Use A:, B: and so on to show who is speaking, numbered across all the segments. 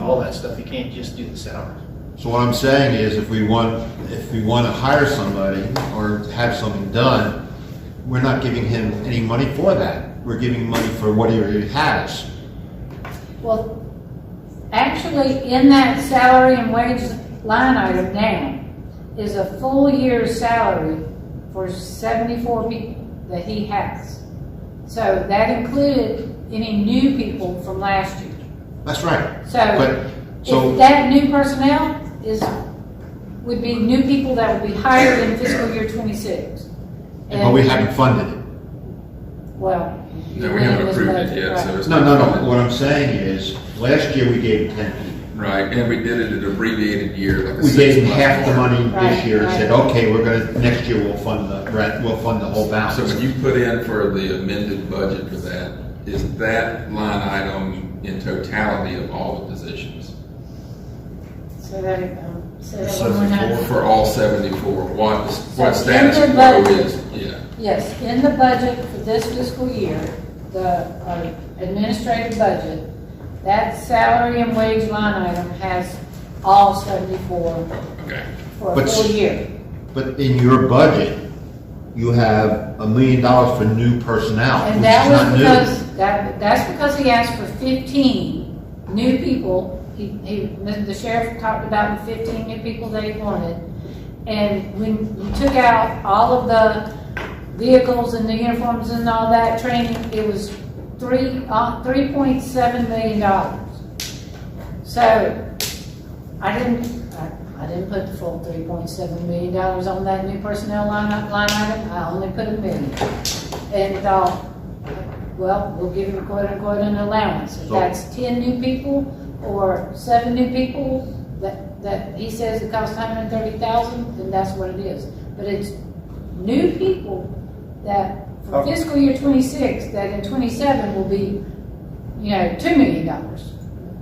A: all that stuff. You can't just do the salary.
B: So what I'm saying is, if we want, if we want to hire somebody or have something done, we're not giving him any money for that. We're giving money for what he already has.
C: Well, actually, in that salary and wage line item now is a full year's salary for seventy-four people that he has. So that included any new people from last year.
B: That's right.
C: So
B: But,
C: if
B: so,
C: that new personnel is, would be new people that would be hired in fiscal year twenty-six.
B: but we haven't funded it.
C: Well.
D: No, we haven't
C: it was
D: approved it
C: budgeted,
D: yet,
C: right.
D: so it's.
B: No, no,
D: not
B: no.
D: funded.
B: What I'm saying is, last year we gave him ten people.
D: Right, and we did it an abbreviated year, like a
B: We
D: six.
B: gave him
D: month
B: half the
D: form.
B: money this
C: Right,
B: year and
C: right.
B: said, okay, we're gonna, next year we'll fund the, rest- we'll fund the whole
D: So when
B: balance.
D: you put in for the amended budget for that, is that line item in totality of all the positions?
C: So that, um, so that one more time.
D: For all seventy-four, what, what
C: So
D: status
C: in the
D: quo
C: budget-
D: is, yeah.
C: Yes, in the budget for this fiscal year, the uh, administrative budget, that salary and wage line item has all 74
D: Okay,
C: for a
B: But-
C: full year.
B: But in your budget, you have a million dollars for new personnel,
C: And
B: which
C: that
B: is not
C: was
B: new.
C: because, that, that's because he asked for 15 new people. He, he, the sheriff talked about the 15 new people that he wanted. And when you took out all of the vehicles and the uniforms and all that training, it was three, uh, 3.7 million dollars. So I didn't, I, I didn't put the full 3.7 million dollars on that new personnel line, line item. I only put a million and thought, well, we'll give him quote unquote an allowance. If
B: So-
C: that's ten new people or seven new people, that, that he says it costs hundred and thirty thousand, then that's what it is. But it's new people that
B: Oh.
C: for fiscal year twenty-six, that in twenty-seven will be, you know, two million dollars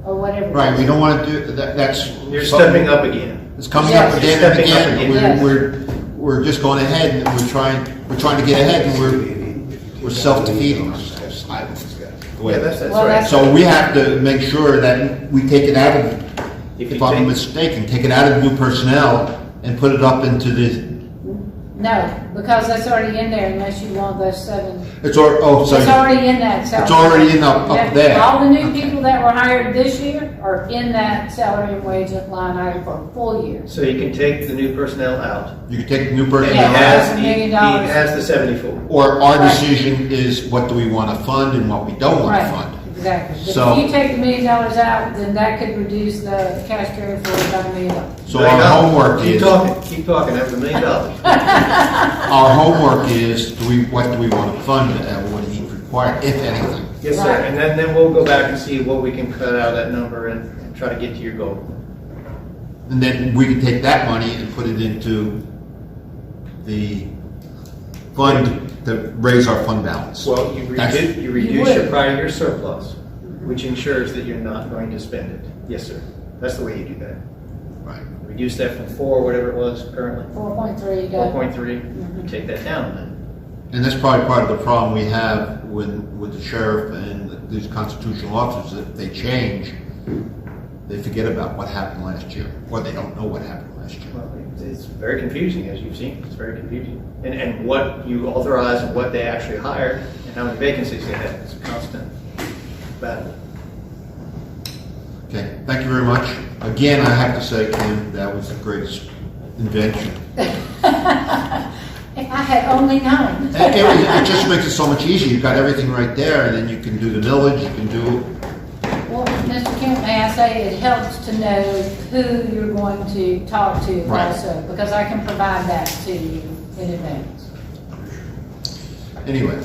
C: or whatever. it
B: Right,
C: is.
B: we don't wanna do, that, that's.
A: You're
B: something-
A: stepping up again.
B: It's coming up
C: Yes.
B: again and
A: Stepping up
B: again.
A: again.
C: Yes.
B: We're, we're, we're just going ahead and we're trying, we're trying to get ahead and we're, we're self-defeating ourselves. I- the way-
A: Yeah, that's, that's
C: Well,
A: right.
C: that's-
B: So we have to make sure that we take it out of,
A: If
B: if
A: you
B: I'm
A: take-
B: mistaken, take it out of new personnel and put it up into the,
C: No, because that's already in there unless you want those seven
B: it's al, oh,
C: It's
B: sorry.
C: already in that salary.
B: It's already in up- up
C: Yeah,
B: there.
C: All the new people that were hired this year are in that salary and wage line item for a full year.
A: So you can take the new personnel out.
B: You can take new
A: And he
B: personnel
C: Yeah.
B: out,
A: has,
C: a
A: he
C: million
A: he
C: dollars.
A: has the seventy-four.
B: or our
C: Right.
B: decision is what do we want to fund and what we don't want to
C: Right,
B: fund.
C: Exactly.
B: So-
C: But if you take the million dollars out, then that could reduce the cash carry forward by a million dollars.
B: So our homework
A: Keep
B: is, our
A: talking, keep talking, that was a million dollars.
B: homework is, do we, what do we want to fund and what do we require, if anything?
A: Yes, sir,
C: Right.
A: and then, then we'll go back and see what we can cut out of that number and and try to get to your goal.
B: And then we can take that money and put it into the fund to raise our fund balance.
A: Well, you
B: That's-
A: reduce, you reduce your
C: would.
A: prior year surplus, which ensures that you're not going to spend it. Yes, sir, that's the way you do that.
B: Right.
A: Reduce that from four, whatever it was currently,
C: Four point three,
A: four
C: dollars
A: point three, you
C: Mm-hmm.
A: take that down then.
B: And that's probably part of the problem we have with, with the sheriff and these constitutional officers, that they change, they forget about what happened last year, or they don't know what happened last year.
A: Well, it- It's very confusing, as you've seen, it's very confusing. And, and what you authorize and what they actually hired and how many vacancies they had, it's a constant battle.
B: Okay, thank you very much. Again, I have to say, Kim, that was the greatest invention.
C: If I had only known.
B: And It, it just makes it so much easier, you've got everything right there, and then you can do the millage, you can do
C: Well, Mr. Kent, may I say, it helps to know who you're going to talk to
B: Right.
C: also, because I can provide that to you in advance.
B: Anyway,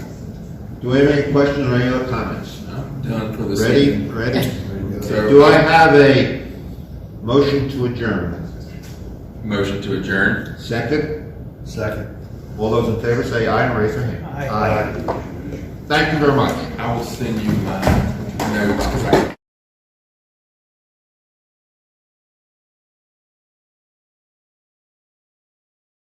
B: do we have any questions or any other comments?
D: I'm done for this
B: Ready,
D: evening.
B: ready?
D: So-
B: Do I have a motion to adjourn?
D: Motion to adjourn.
B: Second? Second. All those in favor say aye and raise their hand. Aye. Thank you very much.
D: I will send you my notes because I